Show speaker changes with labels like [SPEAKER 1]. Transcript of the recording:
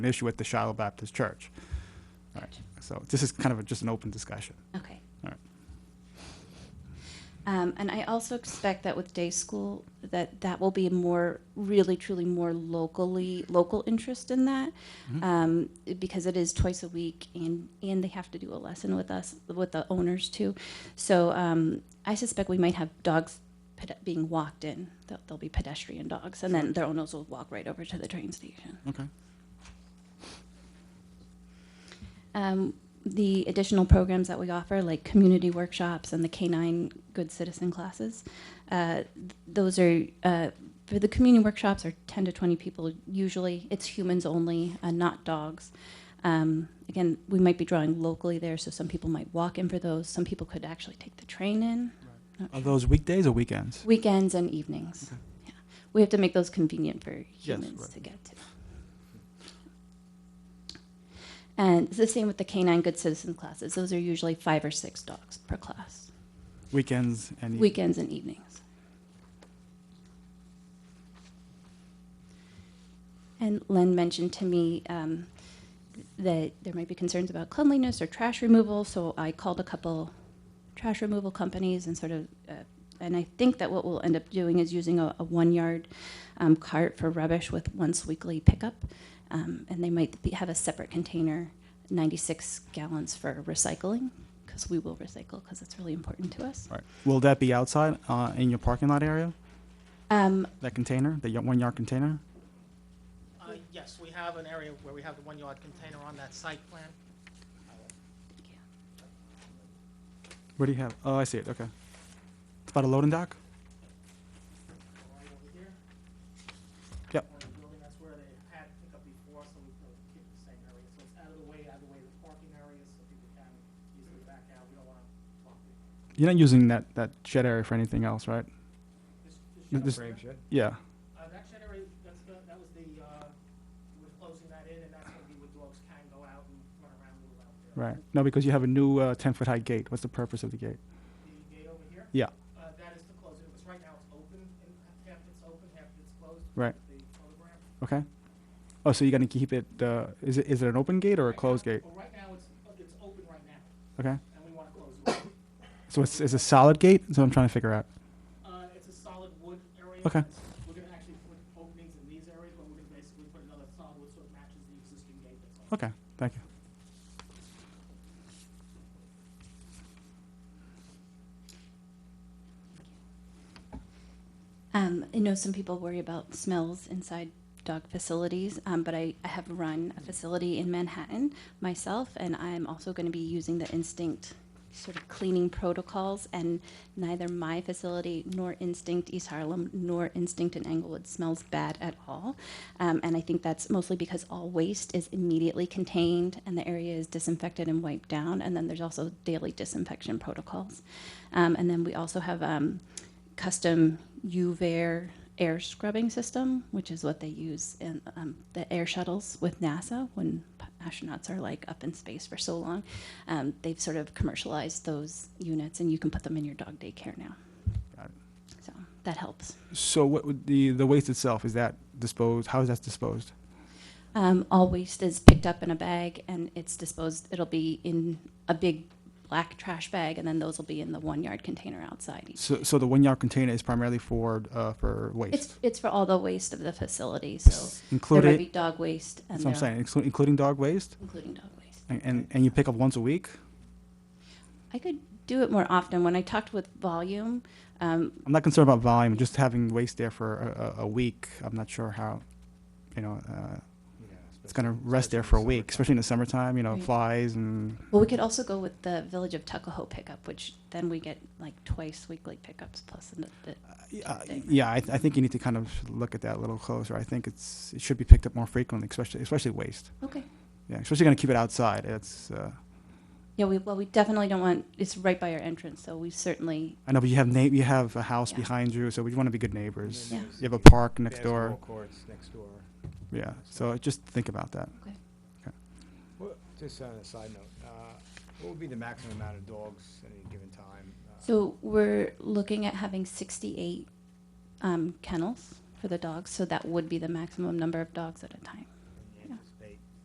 [SPEAKER 1] an issue at the Shiloh Baptist Church. All right, so this is kind of a- just an open discussion.
[SPEAKER 2] Okay.
[SPEAKER 1] All right.
[SPEAKER 2] Um, and I also expect that with day school, that that will be more, really truly more locally, local interest in that. Um, because it is twice a week and, and they have to do a lesson with us, with the owners too. So, um, I suspect we might have dogs ped- being walked in. They'll, they'll be pedestrian dogs and then their owners will walk right over to the train station.
[SPEAKER 1] Okay.
[SPEAKER 2] um, the additional programs that we offer, like community workshops and the K-9 Good Citizen classes. Uh, th- those are, uh, for the community workshops are 10 to 20 people usually. It's humans only, uh, not dogs. Um, again, we might be drawing locally there, so some people might walk in for those. Some people could actually take the train in.
[SPEAKER 1] Are those weekdays or weekends?
[SPEAKER 2] Weekends and evenings. Yeah. We have to make those convenient for
[SPEAKER 1] Yes,
[SPEAKER 2] humans
[SPEAKER 1] right.
[SPEAKER 2] to get to. And it's the same with the canine good citizen classes. Those are usually five or six dogs per class,
[SPEAKER 1] Weekends and. eve-
[SPEAKER 2] weekends and evenings. And Len mentioned to me um, that there might be concerns about cleanliness or trash removal, so I called a couple trash removal companies and sort of, uh, and I think that what we'll end up doing is using a, a one yard um, cart for rubbish with once weekly pickup. Um, and they might be, have a separate container, 96 gallons for recycling, because we will recycle, because it's really important to us.
[SPEAKER 1] All right. Will that be outside, uh, in your parking lot area?
[SPEAKER 2] Um,
[SPEAKER 1] That container, the one yard container?
[SPEAKER 3] Uh, Yes, we have an area where we have the one-yard container on that site plan.
[SPEAKER 1] What do you have? Oh, I see it. Okay. It's about a loading dock?
[SPEAKER 3] Right over here.
[SPEAKER 1] Yep.
[SPEAKER 3] Or the building, That's where they had pickup before, so we could keep the same area. So it's out of the way, out of the way of the parking areas, so people can easily back out. We don't want to block it.
[SPEAKER 1] You're not using that, that shed area for anything else, right?
[SPEAKER 3] This-
[SPEAKER 1] No,
[SPEAKER 3] shed
[SPEAKER 1] this-
[SPEAKER 3] over here,
[SPEAKER 1] Yeah.
[SPEAKER 3] uh, That shed area, that's, the- that was the, uh, we're closing that in, and that's going to be where dogs can go out and run around, move out there.
[SPEAKER 1] Right. No, because you have a new, uh, ten foot high gate. What's the purpose of the gate?
[SPEAKER 3] The gate over here?
[SPEAKER 1] Yeah.
[SPEAKER 3] Uh, That is to close it. It was right now, it's open, and half it's open, half it's closed.
[SPEAKER 1] Right.
[SPEAKER 3] The photograph.
[SPEAKER 1] Okay. Oh, so you're gonna keep it, uh, is it, is it an open gate or a
[SPEAKER 3] Right now-
[SPEAKER 1] closed gate?
[SPEAKER 3] Well, right now, it's, it's open right now,
[SPEAKER 1] Okay.
[SPEAKER 3] and we want to close it.
[SPEAKER 1] So it's, it's a solid gate? That's what I'm trying to figure out.
[SPEAKER 3] Uh, it's a solid wood area.
[SPEAKER 1] Okay.
[SPEAKER 3] It's- We're gonna actually put openings in these areas, but we're gonna basically put another solid wood so it matches the existing gate that's on.
[SPEAKER 1] Okay, thank you.
[SPEAKER 2] Um, I know some people worry about smells inside dog facilities, um, but I, I have run a facility in Manhattan myself, and I'm also going to be using the Instinct sort of cleaning protocols. And neither my facility nor Instinct East Harlem nor Instinct in Englewood smells bad at all. Um, and I think that's mostly because all waste is immediately contained and the area is disinfected and wiped down. And then there's also daily disinfection protocols. Um, and then we also have. Um, custom UVair air scrubbing system, which is what they use in um, the air shuttles with NASA when p- astronauts are like up in space for so long. Um, they've sort of commercialized those units, and you can put them in your dog daycare now.
[SPEAKER 1] Got it.
[SPEAKER 2] So that helps.
[SPEAKER 1] So what would the, the waste itself, is that disposed, how is that disposed?
[SPEAKER 2] Um, all waste is picked up in a bag and it's disposed. It'll be in a big black trash bag, and then those will be in the one yard container outside. each
[SPEAKER 1] So, so the one yard container is primarily for, uh, for waste?
[SPEAKER 2] It's it's for all the waste of the facility, so there might be
[SPEAKER 1] Included,
[SPEAKER 2] dog waste and
[SPEAKER 1] that's what I'm saying,
[SPEAKER 2] there-
[SPEAKER 1] exclu- including dog waste?
[SPEAKER 2] including dog waste.
[SPEAKER 1] And- And, and you pick up once a week?
[SPEAKER 2] I could do it more often. When I talked with Volume, um,
[SPEAKER 1] I'm not concerned about volume, just having waste there for a, a, a week, I'm not sure how, you know, uh, it's gonna rest there for a week, especially in the summertime, you know,
[SPEAKER 2] Right.
[SPEAKER 1] flies and,
[SPEAKER 2] well, we could also go with the Village of Tuckahoe pickup, which then we get like twice weekly pickups plus. an- the-
[SPEAKER 1] yeah,
[SPEAKER 2] Thing.
[SPEAKER 1] yeah, I, I think you need to kind of look at that a little closer. I think it's, it should be picked up more frequently, especially, especially waste.
[SPEAKER 2] Okay.
[SPEAKER 1] Yeah, especially gonna keep it outside. It's uh,
[SPEAKER 2] Yeah, we, well, we definitely don't want, it's right by our entrance, so we certainly,
[SPEAKER 1] I know, but you have na- you have a house
[SPEAKER 2] Yeah.
[SPEAKER 1] behind you, so we want to be good neighbors.
[SPEAKER 2] Yeah.
[SPEAKER 1] You have a park next door.
[SPEAKER 4] Basketball courts next door.
[SPEAKER 1] Yeah, so just think about that.
[SPEAKER 4] What- Just on a side note, uh, what would be the maximum amount of dogs at any given time? uh,
[SPEAKER 2] so we're looking at having sixty-eight um, kennels for the dogs, so that would be the maximum number of dogs at a time.